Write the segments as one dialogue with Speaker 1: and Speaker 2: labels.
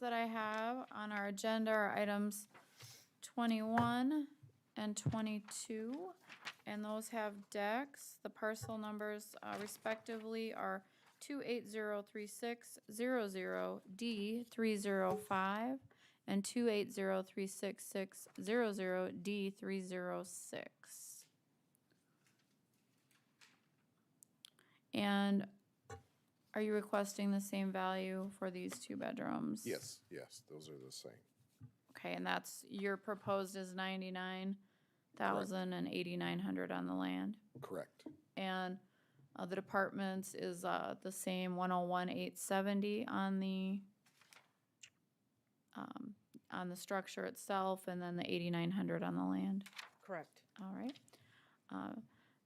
Speaker 1: that I have on our agenda are items twenty-one and twenty-two. And those have decks. The parcel numbers uh, respectively are two eight zero three six zero zero D three zero five and two eight zero three six six zero zero D three zero six. And are you requesting the same value for these two bedrooms?
Speaker 2: Yes, yes, those are the same.
Speaker 1: Okay, and that's, your proposed is ninety-nine thousand and eighty-nine hundred on the land?
Speaker 2: Correct.
Speaker 1: And uh, the departments is uh, the same, one oh one eight seventy on the um, on the structure itself, and then the eighty-nine hundred on the land.
Speaker 3: Correct.
Speaker 1: All right. Uh,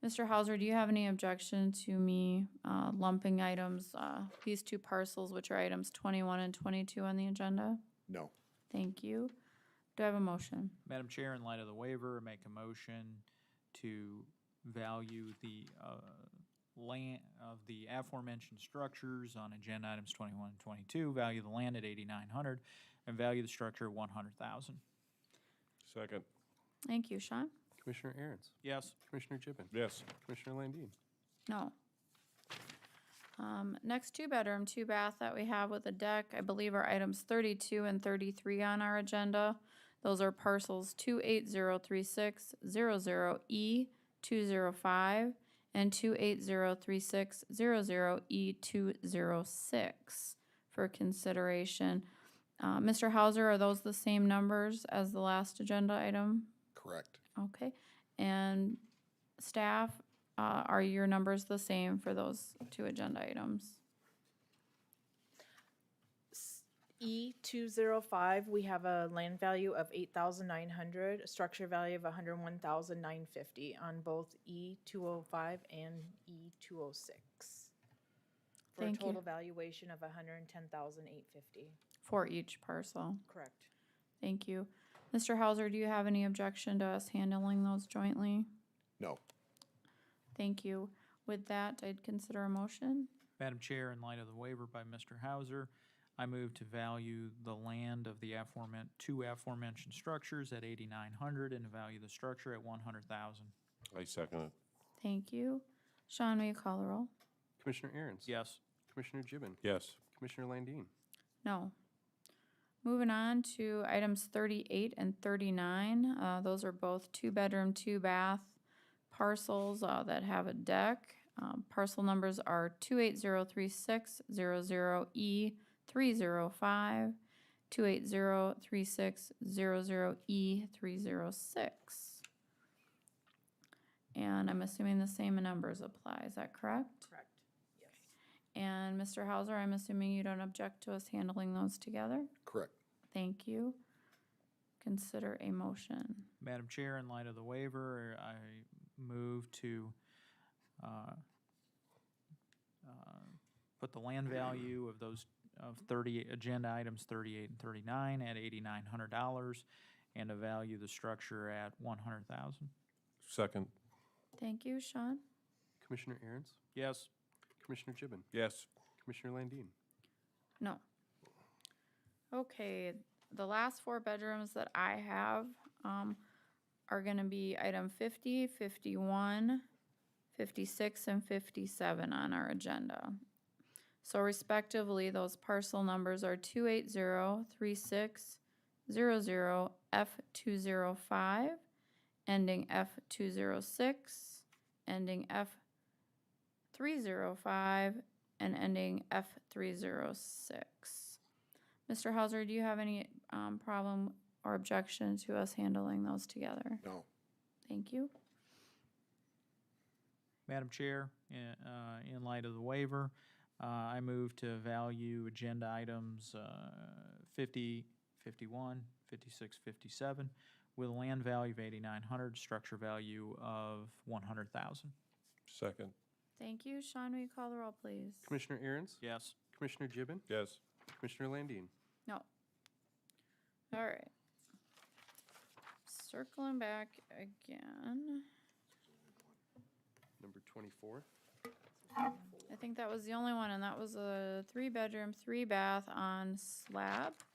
Speaker 1: Mr. Hauser, do you have any objection to me uh, lumping items, uh, these two parcels, which are items twenty-one and twenty-two on the agenda?
Speaker 2: No.
Speaker 1: Thank you. Do I have a motion?
Speaker 4: Madam Chair, in light of the waiver, make a motion to value the uh, land of the aforementioned structures on agenda items 21 and 22, value the land at 8,900, and value the structure at 100,000.
Speaker 5: Second.
Speaker 1: Thank you, Sean.
Speaker 5: Commissioner Aaron's.
Speaker 4: Yes.
Speaker 5: Commissioner Gibbon.
Speaker 2: Yes.
Speaker 5: Commissioner Landine.
Speaker 1: No. Um, next two bedroom, two bath that we have with a deck, I believe are items thirty-two and thirty-three on our agenda. Those are parcels two eight zero three six zero zero E two zero five and two eight zero three six zero zero E two zero six for consideration. Uh, Mr. Hauser, are those the same numbers as the last agenda item?
Speaker 2: Correct.
Speaker 1: Okay, and staff, uh, are your numbers the same for those two agenda items?
Speaker 3: E two zero five, we have a land value of eight thousand nine hundred, a structure value of a hundred one thousand nine fifty on both E two oh five and E two oh six. For a
Speaker 1: Thank you.
Speaker 3: total valuation of a hundred and ten thousand eight fifty.
Speaker 1: For each parcel,
Speaker 3: Correct.
Speaker 1: thank you. Mr. Hauser, do you have any objection to us handling those jointly?
Speaker 2: No.
Speaker 1: Thank you. With that, I'd consider a motion.
Speaker 4: Madam Chair, in light of the waiver by Mr. Hauser, I move to value the land of the aforementioned, two aforementioned structures at 8,900 and value the structure at 100,000.
Speaker 5: I second it.
Speaker 1: Thank you. Sean, will you call the roll?
Speaker 5: Commissioner Aaron's.
Speaker 4: Yes.
Speaker 5: Commissioner Gibbon.
Speaker 2: Yes.
Speaker 5: Commissioner Landine.
Speaker 1: No. Moving on to items thirty-eight and thirty-nine, uh, those are both two-bedroom, two-bath parcels, uh, that have a deck. Um, parcel numbers are two eight zero three six zero zero E three zero five, two eight zero three six zero zero E three zero six. And I'm assuming the same numbers apply, is that correct?
Speaker 3: Correct. Yes.
Speaker 1: And Mr. Hauser, I'm assuming you don't object to us handling those together?
Speaker 2: Correct.
Speaker 1: Thank you. Consider a motion.
Speaker 4: Madam Chair, in light of the waiver, I move to uh, uh, put the land value of those, of 30, agenda items 38 and 39 at $8,900 and to value the structure at 100,000.
Speaker 5: Second.
Speaker 1: Thank you, Sean.
Speaker 5: Commissioner Aaron's.
Speaker 4: Yes.
Speaker 5: Commissioner Gibbon.
Speaker 2: Yes.
Speaker 5: Commissioner Landine.
Speaker 1: No. Okay, the last four bedrooms that I have, um, are gonna be item 50, 51, 56, and fifty-seven on our agenda. So respectively, those parcel numbers are two eight zero three six zero zero F two zero five, ending F two zero six, ending F three zero five, and ending F306. Mr. Hauser, do you have any um, problem or objection to us handling those together?
Speaker 2: No.
Speaker 1: Thank you.
Speaker 4: Madam Chair, in, uh, in light of the waiver, uh, I move to value agenda items, uh, 50, 51, 56, 57, with a land value of 8,900, structure value of 100,000.
Speaker 2: Second.
Speaker 1: Thank you. Sean, will you call the roll, please?
Speaker 5: Commissioner Aaron's.
Speaker 4: Yes.
Speaker 5: Commissioner Gibbon.
Speaker 2: Yes.
Speaker 5: Commissioner Landine.
Speaker 1: No. All right. Circling back again.
Speaker 5: Number 24.
Speaker 1: I think that was the only one, and that was a three-bedroom, three-bath on slab.